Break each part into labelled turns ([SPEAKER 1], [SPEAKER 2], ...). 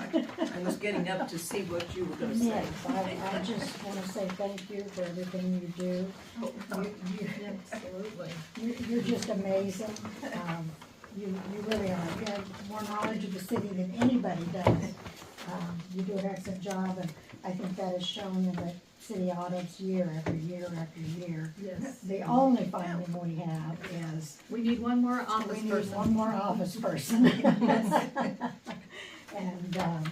[SPEAKER 1] I was getting up to see what you were gonna say.
[SPEAKER 2] Yes, I, I just wanna say thank you for everything you do. You, you,
[SPEAKER 3] Absolutely.
[SPEAKER 2] you- you're just amazing. Um, you, you really are. You have more knowledge of the city than anybody does. Um, you do an excellent job, and I think that is shown in the city audits year after year after year.
[SPEAKER 3] Yes.
[SPEAKER 2] The only finding we have is
[SPEAKER 3] We need one more
[SPEAKER 2] we
[SPEAKER 3] office
[SPEAKER 2] need
[SPEAKER 3] person.
[SPEAKER 2] one more office person. And, um,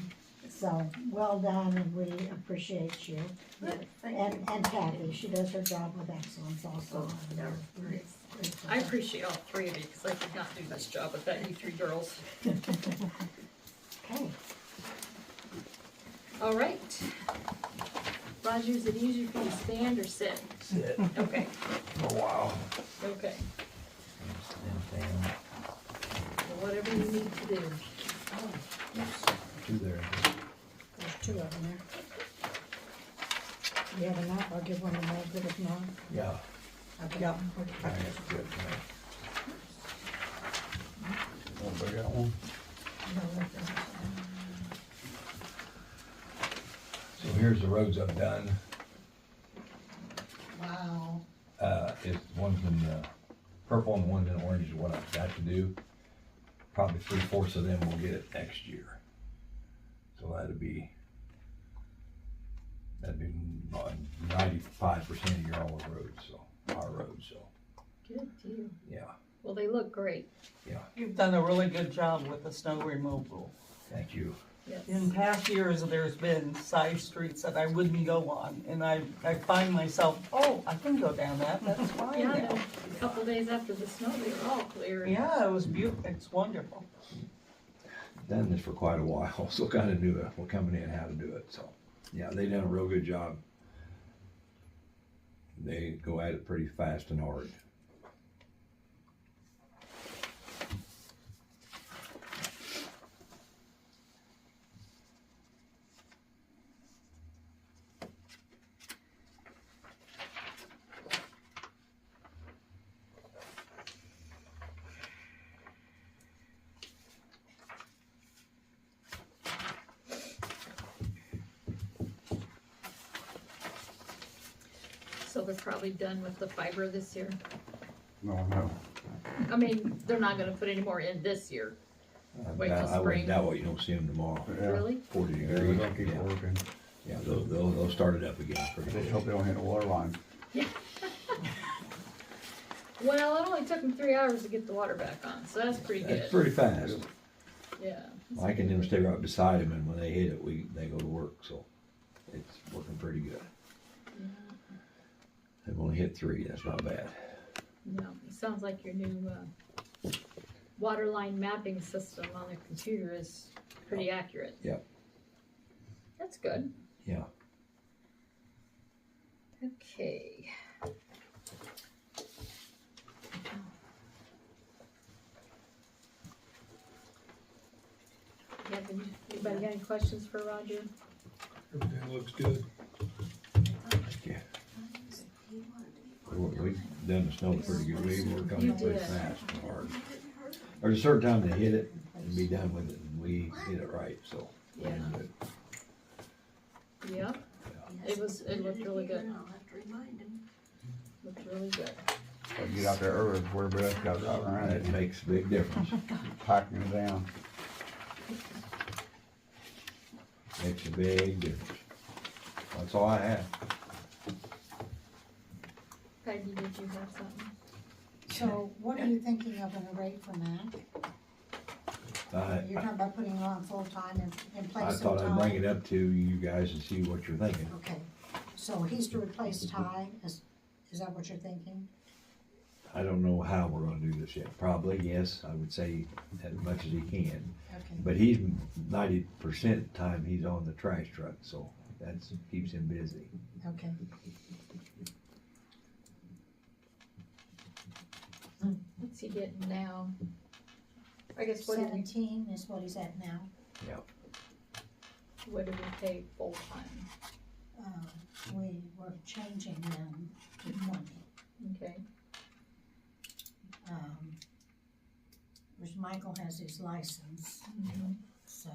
[SPEAKER 2] so, well done, and we appreciate you.
[SPEAKER 1] Thank you.
[SPEAKER 2] And, and Kathy, she does her job with excellence also.
[SPEAKER 1] Oh,
[SPEAKER 2] and
[SPEAKER 1] yeah.
[SPEAKER 2] we're great- grateful.
[SPEAKER 4] I appreciate all three of you, because I could not do this job without you three girls.
[SPEAKER 2] Okay,
[SPEAKER 4] All right.
[SPEAKER 3] Roger, is it easier for you to stand or sit?
[SPEAKER 5] Sit
[SPEAKER 4] Okay,
[SPEAKER 5] for a while.
[SPEAKER 4] okay.
[SPEAKER 3] Whatever you need to do.
[SPEAKER 5] Two there.
[SPEAKER 2] Oh, there's two of them there. You have enough, I'll give one to Meg, but if not,
[SPEAKER 5] Yeah.
[SPEAKER 2] okay.
[SPEAKER 1] Yeah.
[SPEAKER 5] I guess good. Want to bring that one? So here's the roads I've done.
[SPEAKER 2] Wow.
[SPEAKER 5] Uh, it's one's in uh, purple and one's in orange is what I've got to do. Probably three fourths of them will get it next year. So that'd be, that'd be ninety-five percent of your all roads, so, our roads, so,
[SPEAKER 3] Good deal.
[SPEAKER 5] yeah,
[SPEAKER 3] Well, they look great.
[SPEAKER 6] You've done a really good job with the snow removal.
[SPEAKER 5] thank you.
[SPEAKER 3] Yes.
[SPEAKER 6] In past years, there's been side streets that I wouldn't go on, and I, I find myself, oh, I can go down that, that's fine
[SPEAKER 3] Yeah,
[SPEAKER 6] now.
[SPEAKER 3] the- a couple days after the snow, they were all clear.
[SPEAKER 6] Yeah, it was beautiful, it's wonderful.
[SPEAKER 5] Done this for quite a while, so kinda knew it, what company and how to do it, so, yeah, they done a real good job. They go at it pretty fast and hard.
[SPEAKER 4] So they're probably done with the fiber this year.
[SPEAKER 7] No, no.
[SPEAKER 4] I mean, they're not gonna put any more in this year,
[SPEAKER 5] I
[SPEAKER 4] Wait till
[SPEAKER 5] doubt- I wouldn't
[SPEAKER 4] spring.
[SPEAKER 5] doubt what you don't see them tomorrow.
[SPEAKER 7] Yeah.
[SPEAKER 4] really?
[SPEAKER 5] Forty
[SPEAKER 7] Yeah, they're
[SPEAKER 5] degrees.
[SPEAKER 7] gonna keep
[SPEAKER 5] Yeah,
[SPEAKER 7] working.
[SPEAKER 5] yeah, they'll, they'll, they'll start it up again pretty
[SPEAKER 7] Just
[SPEAKER 5] soon.
[SPEAKER 7] hope they don't hit a water line.
[SPEAKER 4] Well, it only took them three hours to get the water back on, so that's pretty
[SPEAKER 5] That's
[SPEAKER 4] good,
[SPEAKER 5] pretty fast.
[SPEAKER 4] yeah.
[SPEAKER 5] Mike and them stay right beside him and when they hit it, we, they go to work, so it's working pretty good.
[SPEAKER 4] Mm-hmm.
[SPEAKER 5] They've only hit three, that's not bad.
[SPEAKER 4] No, it sounds like your new, uh, water line mapping system on the computer is pretty accurate.
[SPEAKER 5] Yep.
[SPEAKER 4] That's good.
[SPEAKER 5] Yeah.
[SPEAKER 4] Okay. You have any- Anybody got any questions for Roger?
[SPEAKER 8] Everything looks good.
[SPEAKER 5] Yeah. We- We've done the snow pretty good, we work on
[SPEAKER 4] You
[SPEAKER 5] it pretty
[SPEAKER 4] did.
[SPEAKER 5] fast and hard. There's a certain time to hit it and be done with it, and we hit it right, so. we're
[SPEAKER 4] Yeah.
[SPEAKER 5] good.
[SPEAKER 4] Yep, it was, it looked really good,
[SPEAKER 9] I'll have to remind him.
[SPEAKER 4] looked really good.
[SPEAKER 7] If I Get out there early before everybody else got out around
[SPEAKER 5] That
[SPEAKER 7] it,
[SPEAKER 5] makes a big difference.
[SPEAKER 7] packing them down.
[SPEAKER 5] Makes a big difference. That's all I have.
[SPEAKER 4] Peggy, did you have something?
[SPEAKER 2] So what are you thinking of in a rate for Mac?
[SPEAKER 5] I,
[SPEAKER 2] You're talking about putting on full-time and, and
[SPEAKER 5] I
[SPEAKER 2] place some
[SPEAKER 5] thought I'd bring
[SPEAKER 2] time?
[SPEAKER 5] it up to you guys and see what you're thinking.
[SPEAKER 2] Okay, so he's to replace Ty, is, is that what you're thinking?
[SPEAKER 5] I don't know how we're gonna do this yet. Probably, yes, I would say as much as he can.
[SPEAKER 2] Okay,
[SPEAKER 5] But he's ninety percent time he's on the trash truck, so that's, keeps him busy.
[SPEAKER 2] okay.
[SPEAKER 4] What's he getting now? I guess what did we,
[SPEAKER 2] Seventeen is what he's at now.
[SPEAKER 4] what did we pay full time?
[SPEAKER 2] Uh, we were changing them to money.
[SPEAKER 4] Okay,
[SPEAKER 2] um, which Michael has his license, so